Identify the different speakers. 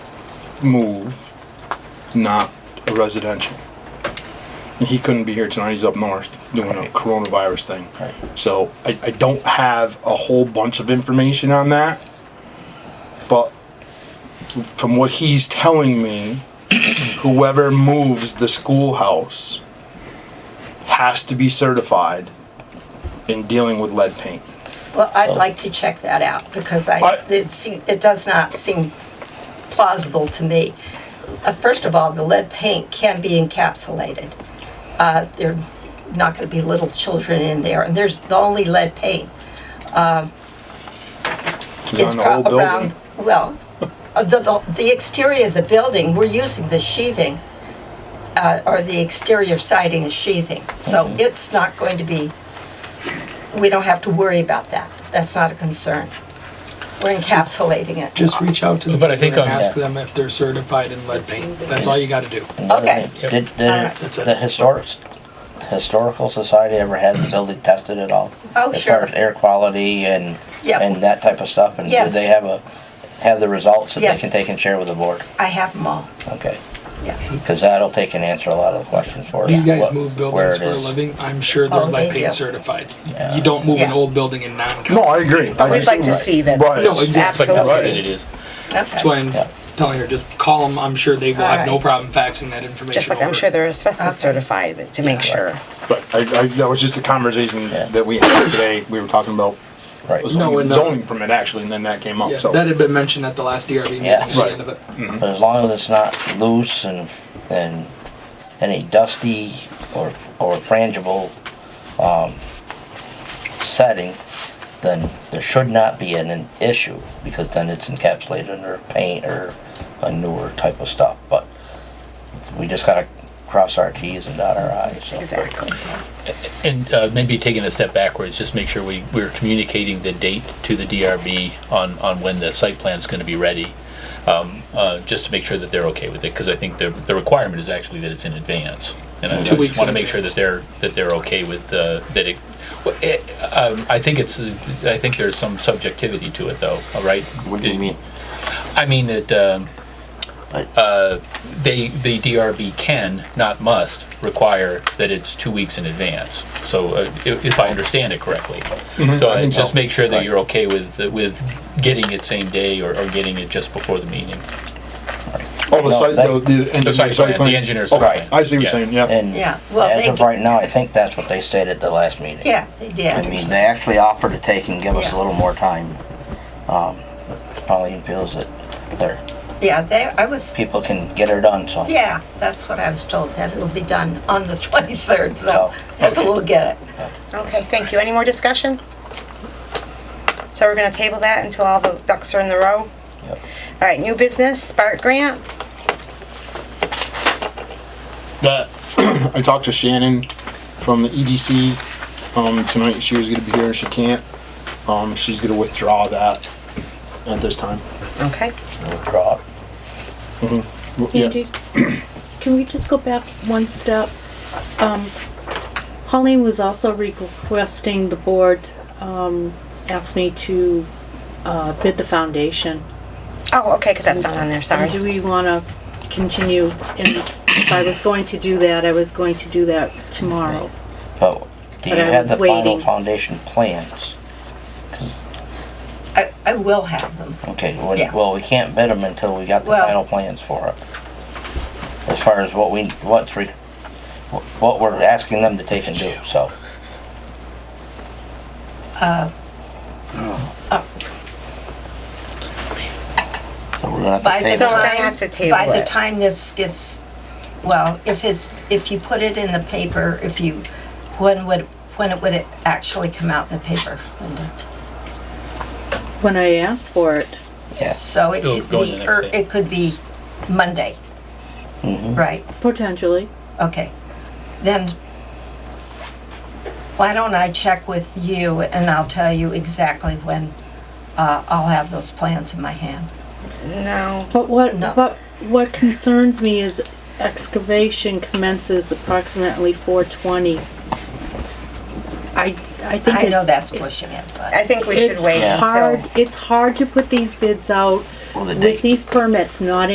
Speaker 1: move, not a residential. And he couldn't be here tonight, he's up north doing a
Speaker 2: Right.
Speaker 1: coronavirus thing.
Speaker 2: Right.
Speaker 1: So I, I don't have a whole bunch of information on that. But from what he's telling me, whoever moves the schoolhouse has to be certified in dealing with lead paint.
Speaker 3: Well, I'd like to check that out because I,
Speaker 1: Oh. I-
Speaker 3: it seem, it does not seem plausible to me. Uh, First of all, the lead paint can be encapsulated. Uh, There are not going to be little children in there, and there's the only lead paint. um,
Speaker 1: It's
Speaker 3: is
Speaker 1: on the whole
Speaker 3: pro- around,
Speaker 1: building.
Speaker 3: well, uh, the, the- the exterior of the building, we're using the sheathing, uh, or the exterior siding is sheathing, so it's not going to be, we don't have to worry about that. That's not a concern. We're encapsulating it.
Speaker 4: Just reach out to them
Speaker 5: But I think
Speaker 4: and
Speaker 5: I'll
Speaker 4: ask
Speaker 5: ask
Speaker 4: them.
Speaker 5: them if they're certified in lead paint. That's all you gotta do.
Speaker 3: Okay.
Speaker 2: Did, did
Speaker 3: Alright.
Speaker 5: That's it.
Speaker 2: the historic, historical society ever had the building tested at all?
Speaker 3: Oh,
Speaker 2: As far
Speaker 3: sure.
Speaker 2: as air quality and,
Speaker 3: Yeah.
Speaker 2: and that type of stuff? And did
Speaker 3: Yes.
Speaker 2: they have a, have the results that they
Speaker 3: Yes.
Speaker 2: can take and share with the board?
Speaker 3: I have them all,
Speaker 2: Okay,
Speaker 3: yeah.
Speaker 2: because that'll take and answer a lot of the questions for us.
Speaker 5: These guys
Speaker 2: what-
Speaker 5: move
Speaker 2: where
Speaker 5: buildings
Speaker 2: it
Speaker 5: for a
Speaker 2: is.
Speaker 5: living. I'm sure
Speaker 3: Oh,
Speaker 5: they're
Speaker 3: they
Speaker 5: lead
Speaker 3: do.
Speaker 5: paint certified. You don't move an
Speaker 3: Yeah.
Speaker 5: old building in non-con.
Speaker 1: No, I agree. I
Speaker 6: We'd like to
Speaker 1: just-
Speaker 6: see that.
Speaker 1: Right.
Speaker 5: No, exactly. That's what
Speaker 1: Absolutely.
Speaker 5: it is. That's
Speaker 3: Okay.
Speaker 5: why I'm
Speaker 2: Yeah.
Speaker 5: telling her, just call them. I'm sure they will have no
Speaker 3: Alright.
Speaker 5: problem faxing that information.
Speaker 6: Just like I'm
Speaker 5: over.
Speaker 6: sure they're asbestos
Speaker 3: Okay.
Speaker 6: certified but to make sure.
Speaker 1: But I, I, that was just a conversation
Speaker 2: Yeah.
Speaker 1: that we had today, we were talking about
Speaker 2: Right.
Speaker 5: No,
Speaker 1: zoning
Speaker 5: and, uh,
Speaker 1: zoning permit actually, and then that came up,
Speaker 5: Yeah,
Speaker 1: so.
Speaker 5: that had been mentioned at the last DRB meeting
Speaker 2: Yeah.
Speaker 5: at the
Speaker 1: Right.
Speaker 5: end of it.
Speaker 2: But as long as it's not loose and, and any dusty or, or frangible, um, setting, then there should not be an, an issue, because then it's encapsulated under paint or a newer type of stuff, but we just gotta cross our Ts and dot our Is, so.
Speaker 6: Exactly.
Speaker 7: And uh, maybe taking a step backwards, just make sure we, we're communicating the date to the DRB on, on when the site plan's gonna be ready, um, uh, just to make sure that they're okay with it, because I think the, the requirement is actually that it's in advance. And I I
Speaker 5: Two weeks
Speaker 7: just wanna
Speaker 5: in
Speaker 7: make sure that
Speaker 5: advance.
Speaker 7: they're, that they're okay with, uh, that it, well, it- um, I think it's, uh, I think there's some subjectivity to it though, all right?
Speaker 8: What do you mean?
Speaker 7: I mean that, um, uh, they, the DRB can, not must, require that it's two weeks in advance. So uh, i- if I understand it correctly. So
Speaker 1: Mm-hmm. I
Speaker 7: I
Speaker 1: think
Speaker 7: just
Speaker 1: so.
Speaker 7: make sure that
Speaker 1: Right.
Speaker 7: you're okay with, with getting it same day or, or getting it just before the meeting.
Speaker 1: Oh, the
Speaker 2: No,
Speaker 1: site,
Speaker 2: that-
Speaker 1: the, the
Speaker 7: The
Speaker 1: engineer
Speaker 7: site
Speaker 1: site
Speaker 7: plan,
Speaker 1: plan?
Speaker 7: the engineer's
Speaker 1: Okay,
Speaker 7: plan.
Speaker 1: I see what you're
Speaker 7: Yeah.
Speaker 1: saying, yeah.
Speaker 2: And
Speaker 3: Yeah, well, they
Speaker 2: as of
Speaker 3: can-
Speaker 2: right now, I think that's what they said at the last meeting.
Speaker 3: Yeah, they
Speaker 2: I
Speaker 3: did.
Speaker 2: mean, they actually offered to take and give us
Speaker 3: Yeah.
Speaker 2: a little more time. Um, but Pauline feels that their
Speaker 3: Yeah, they, I was,
Speaker 2: people can get her done, so.
Speaker 3: yeah, that's what I was told, that it'll be done on the 23rd, so
Speaker 2: Oh,
Speaker 3: that's when
Speaker 7: okay.
Speaker 3: we'll get it.
Speaker 6: Okay, thank you. Any more discussion? So we're gonna table that until all the ducks are in the row?
Speaker 2: Yep.
Speaker 6: All right, new business, Spark Grant.
Speaker 1: That, I talked to Shannon from the EDC, um, tonight, she was gonna be here, she can't. Um, she's gonna withdraw that at this time.
Speaker 6: Okay.
Speaker 2: Withdraw.
Speaker 1: Well, Yeah,
Speaker 9: Angie, can we just go back one step? Um, Pauline was also requesting the board, um, asked me to, uh, bid the foundation.
Speaker 6: Oh, okay, because that's not on there, sorry.
Speaker 9: And do we wanna continue? And if I was going to do that, I was going to do that tomorrow.
Speaker 2: But do you
Speaker 9: But I
Speaker 2: have
Speaker 9: was
Speaker 2: the final
Speaker 9: waiting.
Speaker 2: foundation plans?
Speaker 3: I, I will have them.
Speaker 2: Okay, well,
Speaker 3: Yeah.
Speaker 2: well, we can't bid them until we got the
Speaker 3: Well-
Speaker 2: final plans for it. As far as what we, what's, re- what we're asking them to take and do, so.
Speaker 3: Uh,
Speaker 2: So we're gonna
Speaker 3: By
Speaker 2: have to
Speaker 3: the
Speaker 2: table
Speaker 6: we're gonna
Speaker 2: it.
Speaker 3: time,
Speaker 6: have to table
Speaker 3: by the
Speaker 6: it.
Speaker 3: time this gets, well, if it's, if you put it in the paper, if you, when would, when it would it actually come out in the paper, Linda?
Speaker 9: When I asked for it,
Speaker 2: Yeah.
Speaker 3: So it
Speaker 7: It'll
Speaker 3: could
Speaker 7: go in the
Speaker 3: be,
Speaker 7: next
Speaker 3: or
Speaker 7: day.
Speaker 3: it could be Monday,
Speaker 6: Mm-hmm.
Speaker 3: right?
Speaker 9: potentially,
Speaker 3: Okay. Then, why don't I check with you and I'll tell you exactly when uh, I'll have those plans in my hand.
Speaker 6: No,
Speaker 9: But what,
Speaker 3: No.
Speaker 9: but what concerns me is excavation commences approximately four twenty. I, I think
Speaker 3: I know
Speaker 9: it's,
Speaker 3: that's pushing it,
Speaker 6: I
Speaker 3: but,
Speaker 6: think we should
Speaker 9: it's
Speaker 6: wait until.
Speaker 9: hard, it's hard to put these bids out
Speaker 2: Well, the
Speaker 9: with
Speaker 2: date.
Speaker 9: these permits not